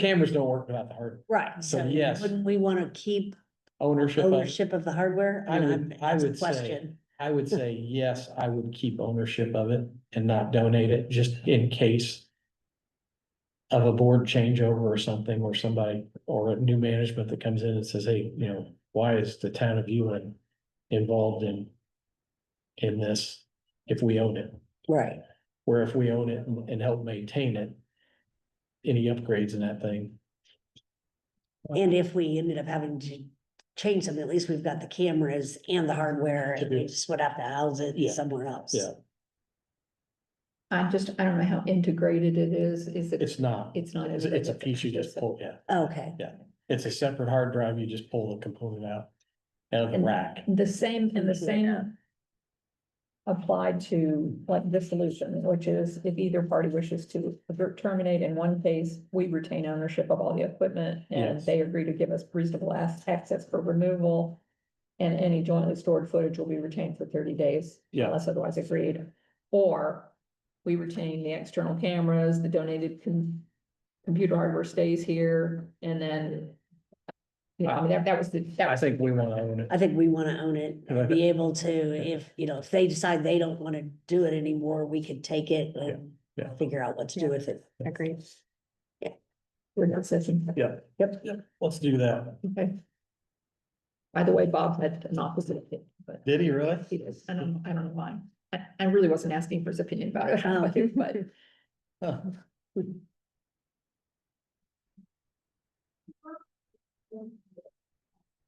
Cameras don't work without the hardware, Right. So, yes. Wouldn't we wanna keep ownership of, ownership of the hardware? I mean, would- I'm- I it's a would say- question. I would say, yes, I would keep ownership of it and not donate it, just in case. Of a board changeover or something, or somebody, or a new management that comes in and says, hey, you know, why is the town of Ewing involved in? In this, if we own it, Right, where if we own it and- and help maintain it. Any upgrades in that thing, and if we ended up having to change them, at least we've got the cameras and the hardware, and we just would have to house Yeah. it somewhere else. Yeah. I just, I don't know how integrated it is, is it? it's not, It's not. it's it's a piece you just pull, yeah. Okay, It's a separate hard drive, you just pull the component out, out of the And- rack. The same, and the same applied to like this solution, which is if either party wishes to terminate in one case, we retain ownership of all the equipment and Yes. they agree to give us reasonable as- access for removal. And any jointly stored footage will be retained for thirty days Yeah, unless otherwise agreed. Or we retain the external cameras, the donated com- computer hardware stays here, and then. You know, I mean, that, that was the, that I was, think we wanna own it. I think we wanna own it, And I think- be able to, if, you know, if they decide they don't wanna do it anymore, we could take it and Yeah, yeah. figure out what to do with it. Agreed. Yeah. We're not session. Yeah. Yep. Let's do that. Okay. By the way, Bob had an opposite opinion, but Did he really? he does, I don't, I don't know why. I, I really wasn't asking for his opinion about Oh. it, but Huh.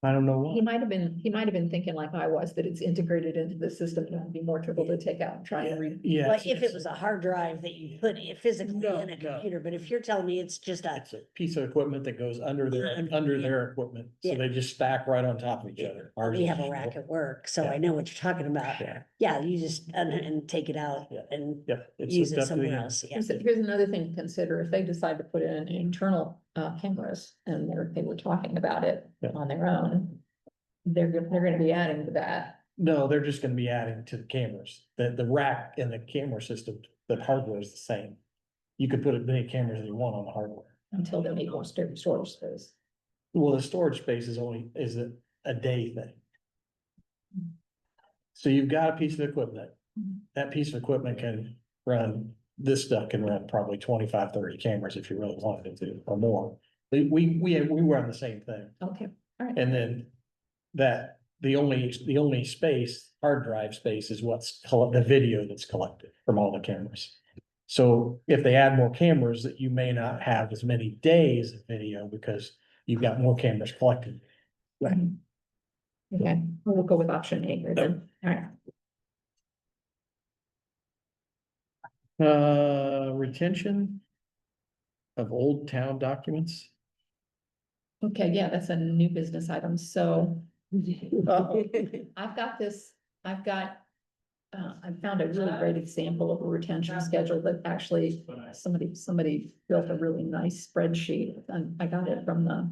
I don't know he what. might have been, he might have been thinking like I was, that it's integrated into the system and it would be more trouble to take out and try and read. Yeah. Like if it was a hard drive that you put it physically No, in a no. computer, but if you're telling me it's just a It's a piece of equipment that goes under their, Under- under their equipment, so Yeah. they just stack right on top of each other. Ours We is have a just- rack at work, so Yeah. I know what you're talking about. Yeah, Yeah, you just, and, and take it out Yeah. and yeah. it's use hooked it up to the somewhere end. else, yeah. Here's, here's another thing to consider, if they decide to put in internal, uh, cameras and they're, they were talking about it Yeah. on their own. They're, go- they're gonna be adding to that, No, they're just gonna be adding to the cameras. The, the rack and the camera system, the hardware is the same. You could put as many cameras as you want on the hardware. until they need more sto- storage space. Well, the storage space is only, is a, a day thing. So you've got a piece of equipment. Mhm. That piece of equipment can run, this stuff can run probably 25, 30 cameras if you really wanted it to, or more. We, we, we, we run the same thing. Okay, all right. And then that, the only, the only space, hard drive space is what's, coll- the video that's collected from all the cameras. So if they add more cameras, that you may not have as many days of video because you've got more cameras collected. Right. Mm-hmm. Okay, we'll go with option A here then, all right. Uh, retention of old town documents? Okay, yeah, that's a new business item, so. Uh-oh. I've got this, I've got, uh, I found a really great example of a retention schedule that actually, somebody, somebody built a really nice spreadsheet, and I got it from the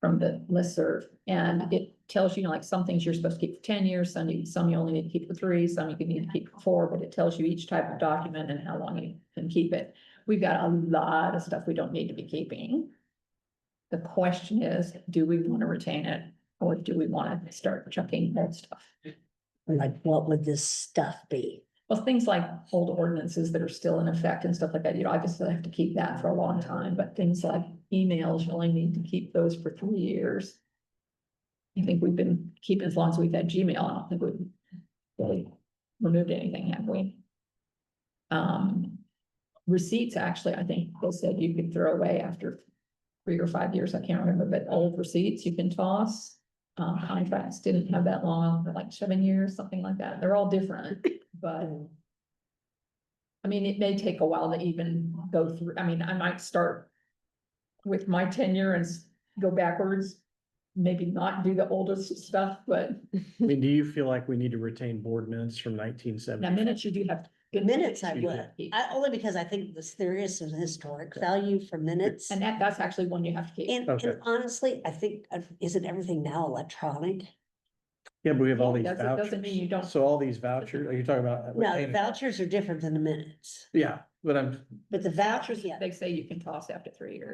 from the listserv, and it tells you, like, some things you're supposed to keep for ten years, some you, some you only need to keep for three, some you could need to keep for four, but it tells you each type of document and how long you can keep it. We've got a lot of stuff we don't need to be keeping. The question is, do we want to retain it, or do we want to start chucking old stuff? Like, what would this stuff be? Well, things like old ordinances that are still in effect and stuff like that, you know, obviously I have to keep that for a long time, but things like emails, you only need to keep those for three years. I think we've been keeping as long as we've had Gmail, I don't think we've really removed anything, have we? Um, receipts, actually, I think they said you could throw away after three or five years, I can't remember, but old receipts you can toss. Um, contracts didn't have that long, but like seven years, something like that, they're all different, but. I mean, it may take a while to even go through, I mean, I might start with my tenure and s- go backwards. Maybe not do the oldest stuff, but I mean, do you feel like we need to retain board minutes from nineteen now seventy? minutes you do have. The minutes I Excuse would, I, only because I think this, there is some historic value for minutes. And And, that, that's actually one you have to keep. Okay. and honestly, I think, uh, isn't everything now electronic? Yeah, but we have all these Doesn't, doesn't vouchers. mean you don't, So all these vouchers, are you talking about? No, retaining- vouchers are different than the minutes. Yeah, but I'm but the vouchers, yeah. They say you can toss after three years.